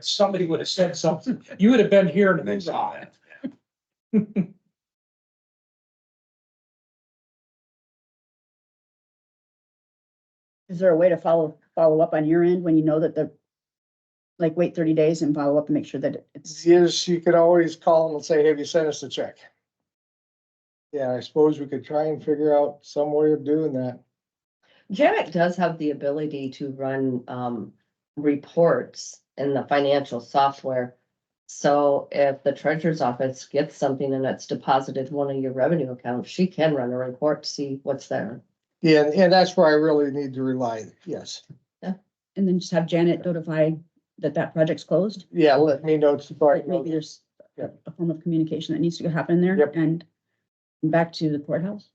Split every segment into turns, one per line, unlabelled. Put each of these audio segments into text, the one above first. somebody would have said something. You would have been here and
Thanks.
on it.
Is there a way to follow, follow up on your end when you know that the, like, wait thirty days and follow up and make sure that it's,
Yes, you could always call them and say, have you sent us a check? Yeah, I suppose we could try and figure out some way of doing that.
Janet does have the ability to run um reports in the financial software. So if the treasurer's office gets something and it's deposited in one of your revenue accounts, she can run a report, to see what's there.
Yeah, and, and that's where I really need to rely, yes.
and then just have Janet notify that that project's closed?
Yeah, let me know. it's
Like, Maybe there's
Yeah.
a form of communication that needs to happen there
Yep.
and back to the courthouse.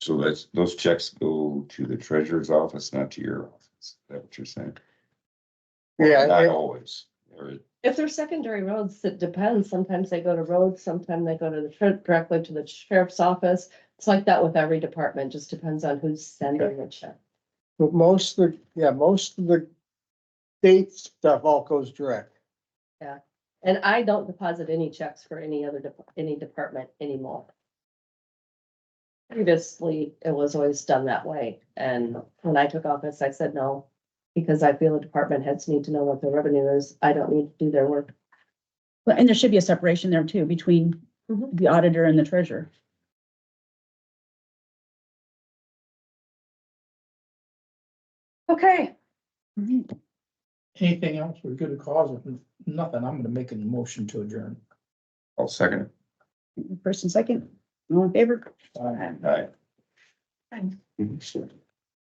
So that's, those checks go to the treasurer's office, not to your office. Is that what you're saying? Or
Yeah,
Not
it-
always. Or-
If they're secondary roads, it depends. Sometimes they go to roads, sometimes they go to the tre- directly to the sheriff's office. It's like that with every department, just depends on who's sending the check.
But most of the, yeah, most of the state stuff all goes direct.
And I don't deposit any checks for any other, dep- any department anymore. Previously, it was always done that way, and when I took office, I said no. Because I feel the department heads need to know what their revenue is, I don't need to do their work.
But, and there should be a separation there too, between
Mm-hmm.
Mhm.
the auditor and the treasurer.
Okay.
Mm-hmm.
Anything else we're good to cause? If Nothing. I'm gonna make a motion to adjourn.
I'll second it.
First and second, all in favor?
Uh,
Aye.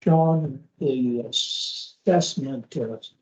John, the assessment uh,